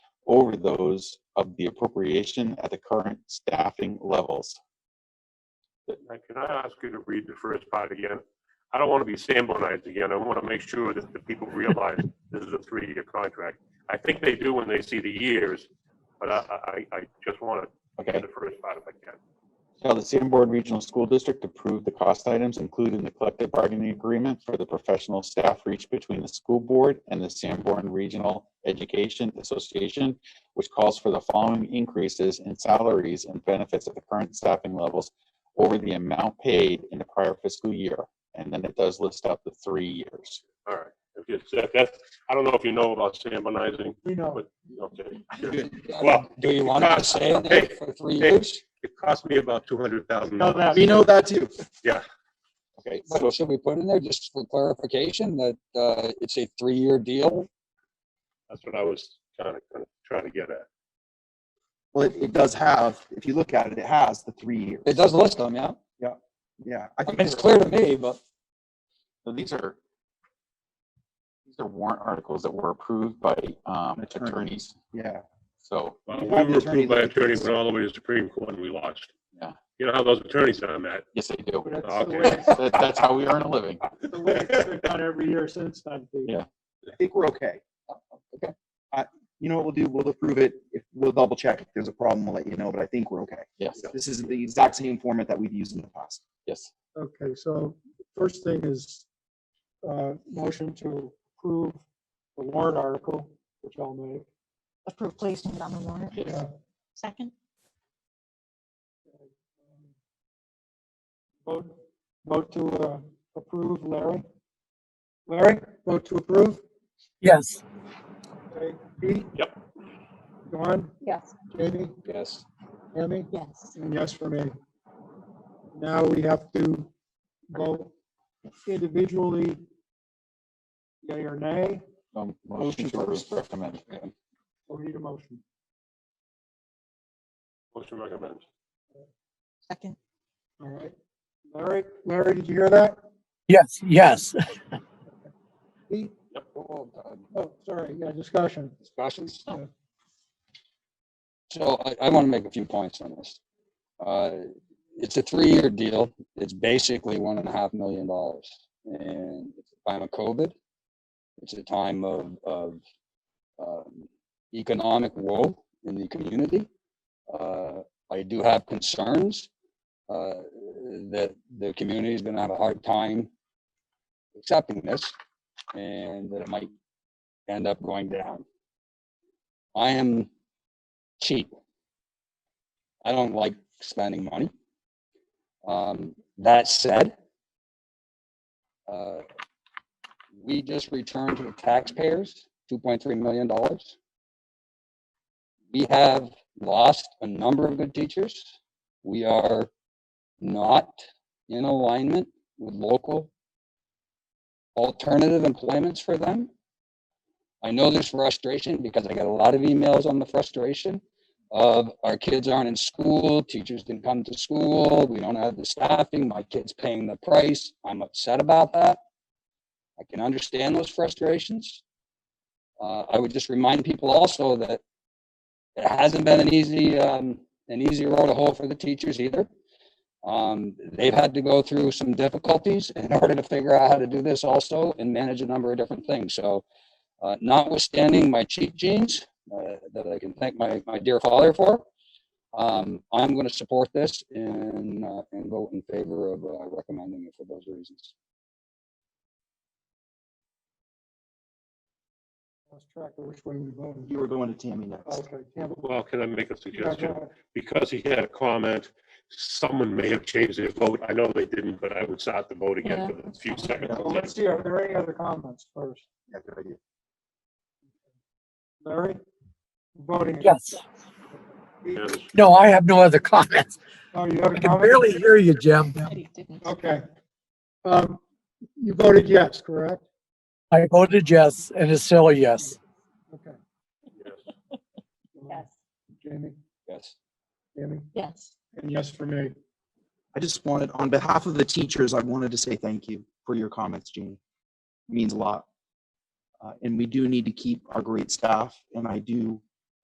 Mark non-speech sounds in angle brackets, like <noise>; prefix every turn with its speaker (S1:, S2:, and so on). S1: over those of the appropriation at the current staffing levels.
S2: Now, Can I ask you to read the first part again? I don't want to be samuelized again. I want to make sure that the people realize this is a three-year contract. I think they do when they see the years, but I, I, I just want to
S1: Okay.
S2: get the first part if I can.
S1: Shall the Sanborn Regional School District approve the cost items included in the collective bargaining agreement for the professional staff reached between the school board and the Sanborn Regional Education Association, which calls for the following increases in salaries and benefits at the current staffing levels over the amount paid in the prior fiscal year? And then it does list out the three years.
S2: All right. If it's- that- That's, I don't know if you know about samuelizing,
S3: You know,
S2: but, okay. It Well,
S4: Well, do you want it to stay in there for three
S2: hey.
S4: years?
S2: cost me about two hundred thousand
S3: know
S2: dollars.
S3: that. We know that too.
S1: Okay, so
S4: But should we put in there just for clarification that uh, it's a three-year deal?
S2: That's what I was kind of, kind of trying to get at.
S3: Well, it, it does have, if you look at it, it has the three years.
S4: It does list them, yeah.
S3: Yeah. I
S4: I mean,
S3: think
S4: it's clear to me, but
S1: So these are, these are warrant articles that were approved by um,
S3: Attorney.
S1: attorneys,
S3: Yeah.
S1: so.
S2: Well,
S3: You
S2: We
S3: have the
S2: were
S3: attorney
S2: approved by
S3: look at
S2: attorney,
S3: this.
S2: went all the way to the Supreme Court and we lost.
S1: Yeah.
S2: You know how those attorneys are, Matt?
S1: Yes, they do.
S3: But that's the
S2: Okay.
S3: way,
S1: That, that's how we earn a living.
S3: the way it's been
S2: <laughs>
S3: done every year since then. Dave.
S1: Yeah.
S3: I think we're okay.
S4: Okay.
S3: I, you know what we'll do? We'll approve it. If, we'll double check. If there's a problem, we'll let you know, but I think we're okay.
S1: Yes,
S3: This is the exact same format that we've used in the past.
S1: yes.
S5: Okay, so first thing is, uh, motion to approve the warrant article, which I'll make.
S6: approve placing it on the warrant.
S1: yes.
S6: Second,
S5: Vote, vote to, uh, approve, Larry? Larry, vote to approve?
S7: yes,
S5: Okay, Pete?
S2: Yep.
S5: Dawn,
S6: yes.
S5: Jamie,
S4: yes.
S5: Tammy,
S6: Yes.
S5: and yes for me. Now we have to vote individually, yea or nay,
S1: Um, Motion to approve, recommend.
S5: or need a motion?
S2: Motion recommended.
S6: Second,
S5: All right. Larry, Larry, did you hear that?
S7: yes, yes. <laughs>
S5: Pete?
S4: Well done.
S5: Oh, sorry, yeah, discussion.
S4: Discussions?
S5: Yeah.
S4: So I, I want to make a few points on this. Uh, It's a three-year deal. It's basically one and a half million dollars. And it's a time of COVID. It's a time of, of um, economic woe in the community. Uh, I do have concerns uh, that the community is going to have a hard time accepting this and that it might end up going down. I am cheap. I don't like spending money. Um, that said, uh, we just returned to the taxpayers $2.3 million. We have lost a number of good teachers. We are not in alignment with local alternative employments for them. I know there's frustration because I got a lot of emails on the frustration of our kids aren't in school, teachers didn't come to school, we don't have the staffing, my kid's paying the price. I'm upset about that. I can understand those frustrations. Uh, I would just remind people also that it hasn't been an easy, um, an easy road to hoe for the teachers either. Um, they've had to go through some difficulties in <laughs> order to figure out how to do this also and manage a number of different things. So uh, notwithstanding my cheap jeans uh, that I can thank my, my dear father for, um, I'm going to support this and, uh, and vote in favor of uh, recommending it for those reasons.
S5: Lost track of which way we voted.
S3: You were going to Tammy
S4: Oh.
S3: next.
S5: Okay, Campbell.
S2: Well, can I make a
S5: yeah, go
S2: suggestion?
S5: ahead.
S2: Because he had a comment, someone may have changed their vote. I know they didn't, but I would start the vote again for a few seconds.
S5: Well, let's see, are there any other comments first?
S3: Yeah, good idea.
S5: Larry? Voting. again.
S7: Yes.
S2: Yes.
S7: No, I have no other comments.
S5: Oh, you have a
S7: I can
S5: comment?
S7: barely hear you, Jim.
S6: Eddie didn't.
S5: Okay. Um, you voted yes, correct?
S7: I voted yes, and it's still a yes.
S5: Okay.
S2: Yes.
S5: Oh.
S6: Yes.
S5: Jamie,
S4: Yes.
S5: Tammy,
S6: Yes.
S5: and yes for me.
S3: I just wanted, on behalf of the teachers, I wanted to say thank you for your comments, Jeannie. It Means a lot. Uh, and we do need to keep our great staff, and I do